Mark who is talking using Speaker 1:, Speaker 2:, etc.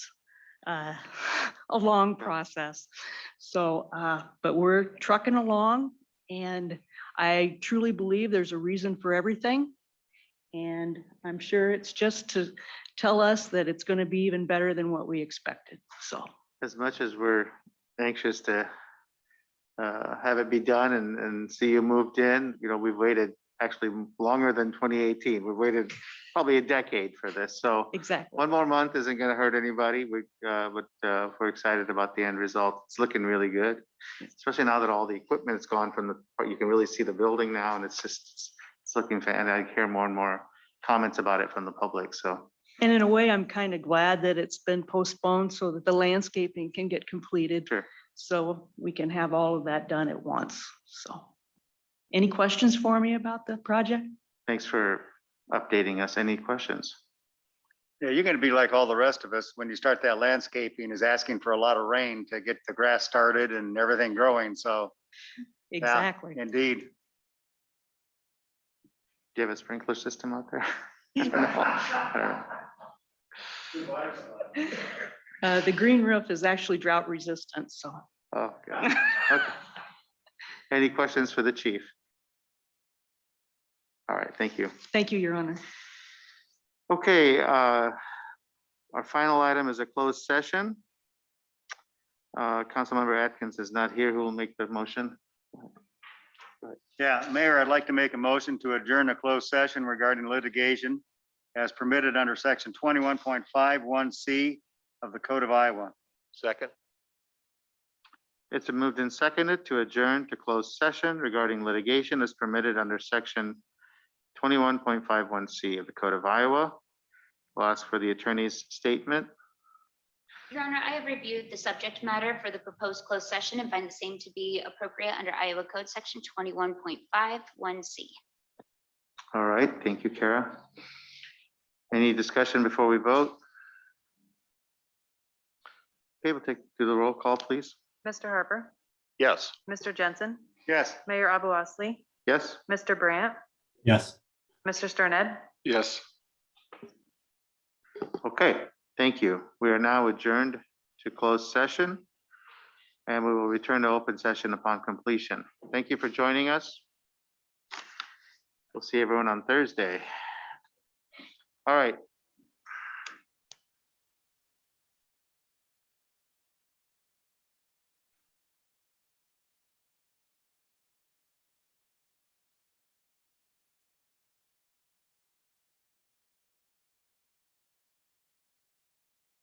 Speaker 1: uh, a long process. So, uh, but we're trucking along and I truly believe there's a reason for everything. And I'm sure it's just to tell us that it's going to be even better than what we expected. So,
Speaker 2: as much as we're anxious to uh, have it be done and, and see you moved in, you know, we've waited actually longer than 2018. We've waited probably a decade for this. So
Speaker 1: exactly.
Speaker 2: one more month isn't going to hurt anybody. We, uh, but uh, we're excited about the end result. It's looking really good, especially now that all the equipment's gone from the, you can really see the building now and it's just, it's looking, fa- and I hear more and more comments about it from the public. So
Speaker 1: And in a way, I'm kind of glad that it's been postponed so that the landscaping can get completed.
Speaker 2: Sure.
Speaker 1: So we can have all of that done at once. So. Any questions for me about the project?
Speaker 2: thanks for updating us. Any questions?
Speaker 3: Yeah, you're gonna be like all the rest of us when you start that landscaping is asking for a lot of rain to get the grass started and everything growing. So
Speaker 1: Exactly.
Speaker 3: indeed,
Speaker 2: Do you have a sprinkler system out there? I don't know. I don't know.
Speaker 1: Uh, the green roof is actually drought resistant, so.
Speaker 2: Oh, God. Okay. Any questions for the chief? All right, thank you.
Speaker 1: Thank you, Your Honor.
Speaker 2: Okay, uh, our final item is a closed session. Uh, Councilmember Atkins is not here. Who will make the motion?
Speaker 3: yeah, Mayor, I'd like to make a motion to adjourn a closed session regarding litigation as permitted under section twenty-one point five one C of the Code of Iowa.
Speaker 4: Second,
Speaker 2: It's been moved and seconded to adjourn to closed session regarding litigation as permitted under section twenty-one point five one C of the Code of Iowa. We'll ask for the attorney's statement.
Speaker 5: Your Honor, I have reviewed the subject matter for the proposed closed session and find the same to be appropriate under Iowa Code Section 21.51C.
Speaker 2: All right, thank you, Kara. Any discussion before we vote? Okay, we'll take, do the roll call, please.
Speaker 6: Mr. Harper,
Speaker 4: yes.
Speaker 6: Mr. Jensen,
Speaker 3: Yes.
Speaker 6: Mayor Abu Osley,
Speaker 2: Yes?
Speaker 6: Mr. Brandt,
Speaker 7: Yes.
Speaker 6: Mr. Sterned.
Speaker 4: Yes.
Speaker 2: Okay, thank you. We are now adjourned to closed session. And we will return to open session upon completion. Thank you for joining us. We'll see everyone on Thursday. All right,